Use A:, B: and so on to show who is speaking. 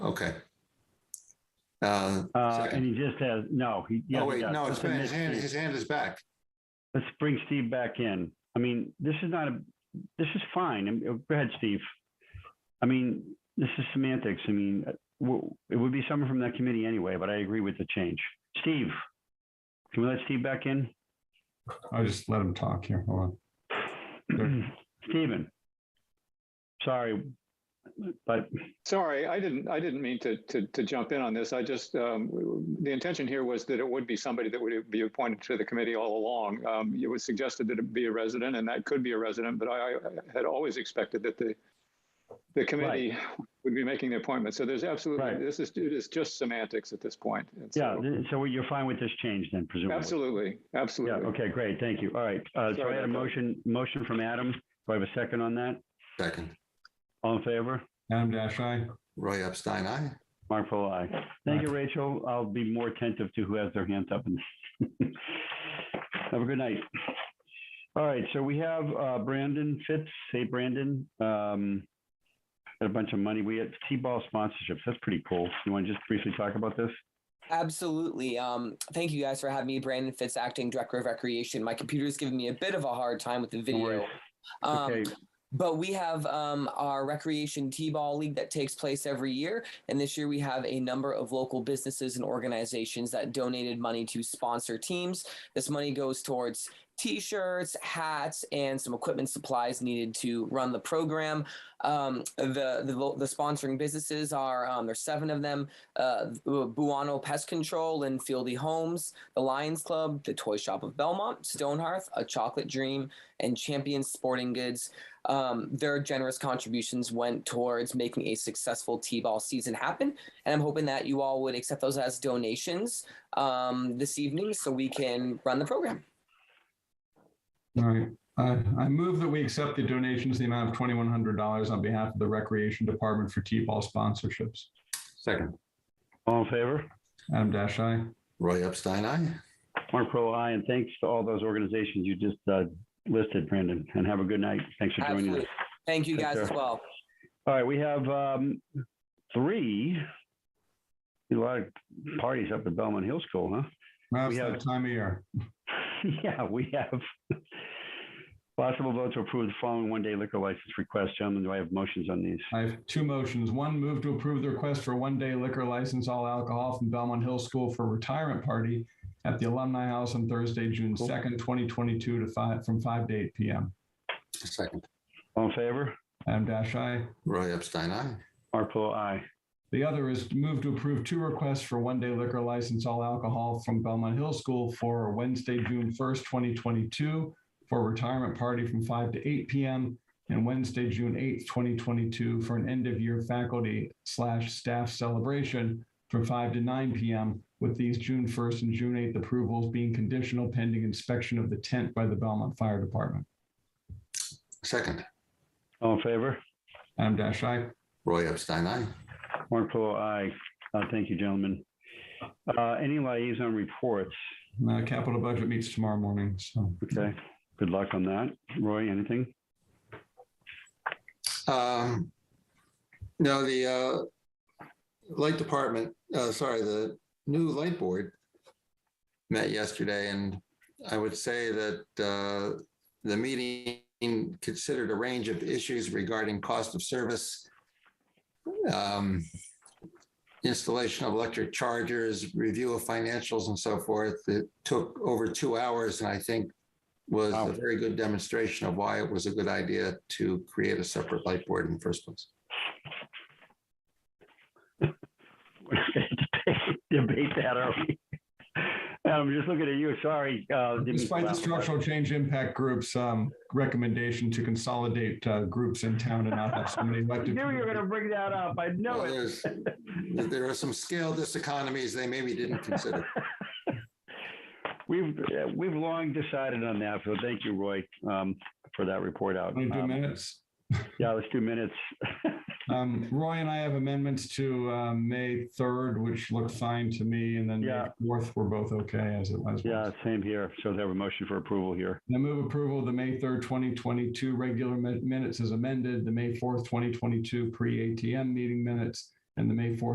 A: Okay. Uh,
B: Uh,
A: Second.
B: and he just has, no, he. yeah,
A: oh
B: he
A: wait,
B: does.
A: no, it's
B: It's a
A: been, his
B: mixed
A: hand,
B: use.
A: his hand is back.
B: Let's bring Steve back in. I mean, this is not a, this is fine. I mean, oh, Go ahead, Steve. I mean, this is semantics. I mean, uh, w- it would be someone from that committee anyway, but I agree with the change. Steve, can we let Steve back in?
C: I'll just let him talk here. Hold on.
B: Stephen. Sorry, but
D: Sorry, I didn't, I didn't mean to, to, to jump in on this. I just, um, the intention here was that it would be somebody that would be appointed to the committee all along. Um, it was suggested that it be a resident and that could be a resident, but I, I had always expected that the, the committee would be making the appointment. So there's absolutely,
B: Right.
D: this is, it is just semantics at this point. And
B: yeah,
D: so-
B: th- so you're fine with this change then presumably?
D: Absolutely,
B: Yeah,
D: absolutely.
B: okay, great. Thank you. All right. Uh, so I
D: Sorry
B: had a
D: about that.
B: motion, motion from Adam. Do I have a second on that?
A: Second,
B: All in favor?
C: Adam Dash, I.
A: Roy Epstein, aye.
B: Mark Polo, aye. Thank you, Rachel. I'll be more attentive to who has their hands up. and- Have a good night. All right, so we have uh, Brandon Fitz. Hey, Brandon. Um, Got a bunch of money. We had T-ball sponsorships. That's pretty cool. You want to just briefly talk about this?
E: Absolutely. Um, thank you guys for having me, Brandon Fitz, acting director of recreation. My computer's giving me a bit of a hard time with the
B: No
E: video.
B: worries.
E: Um,
B: Okay,
E: But we have um, our recreation T-ball league that takes place every year, and this year we have a number of local businesses and organizations that donated money to sponsor teams. This money goes towards T-shirts, hats, and some equipment supplies needed to run the program. Um, the, the lo- the sponsoring businesses are um, there's seven of them: uh, Buono Pest Control and Fieldy Homes, the Lions Club, the Toy Shop of Belmont, Stonehearth, A Chocolate Dream, and Champion Sporting Goods. Um, their generous contributions went towards making a successful T-ball season happen, and I'm hoping that you all would accept those as donations um, this evening, so we can run the program.
C: All right. I, I move that we accept the donations, in the amount of twenty-one hundred dollars on behalf of the Recreation Department for T-ball sponsorships.
A: Second,
B: all in favor?
C: Adam Dash, I.
A: Roy Epstein, aye.
B: Mark Pro, aye, and thanks to all those organizations you just uh, listed, Brandon, and have a good night. Thanks for joining us.
E: Absolutely. Thank you
B: Take
E: guys as
B: care.
E: well.
B: All right, we have um, three, a lot of parties up at Belmont Hill School, huh?
C: That's
B: We have-
C: that time of year.
B: Yeah, we have possible vote to approve the following one-day liquor license request. Gentlemen, do I have motions on these?
C: I have two motions. One, move to approve the request for one-day liquor license, all alcohol from Belmont Hill School for retirement party at the Alumni House on Thursday, June
B: Cool.
C: second, twenty twenty-two to five, from five to eight PM.
A: Second,
B: All in favor?
C: Adam Dash, I.
A: Roy Epstein, aye.
B: Mark Polo, aye.
C: The other is to move to approve two requests for one-day liquor license, all alcohol from Belmont Hill School for Wednesday, June first, twenty twenty-two, for a retirement party from five to eight PM, and Wednesday, June eighth, twenty twenty-two, for an end-of-year faculty slash staff celebration from five to nine PM, with these June first and June eighth approvals being conditional pending inspection of the tent by the Belmont Fire Department.
A: Second,
B: All in favor?
C: Adam Dash, I.
A: Roy Epstein, aye.
B: Mark Polo, aye. Uh, Thank you, gentlemen. Uh, Any liaison reports?
C: Uh, Capital Budget meets tomorrow morning, so.
B: Okay, good luck on that. Roy, anything?
A: Um, no, the, uh, light department, uh, sorry, the new light board met yesterday and I would say that, uh, the meeting considered a range of issues regarding cost of service, um, installation of electric chargers, review of financials and so forth. It took over two hours and I think was
B: Wow.
A: a very good demonstration of why it was a good idea to create a separate light board in the first place.
B: We're gonna debate debate that, are we? I'm just looking at you, sorry. uh, didn't-
C: Despite the structural change impact groups, um, recommendation to consolidate, uh, groups in town and not have so many
B: I knew
C: elected.
B: you were going to bring that up, I know
A: Well,
B: it.
A: there's- There are some scale diseconomies they maybe didn't consider.
B: We've, uh, we've long decided on that, so thank you, Roy, um, for that report out.
C: Want to do
B: Um,
C: minutes?
B: Yeah, let's do minutes.
C: Um, Roy and I have amendments to, uh, May third, which look fine to me, and then May
B: Yeah.
C: fourth, we're both okay as it was.
B: Yeah, same here. So they have a motion for approval here.
C: I move approval of the May third, twenty twenty-two regular mi- minutes as amended, the May fourth, twenty twenty-two pre-ATM meeting minutes, and the May fourth,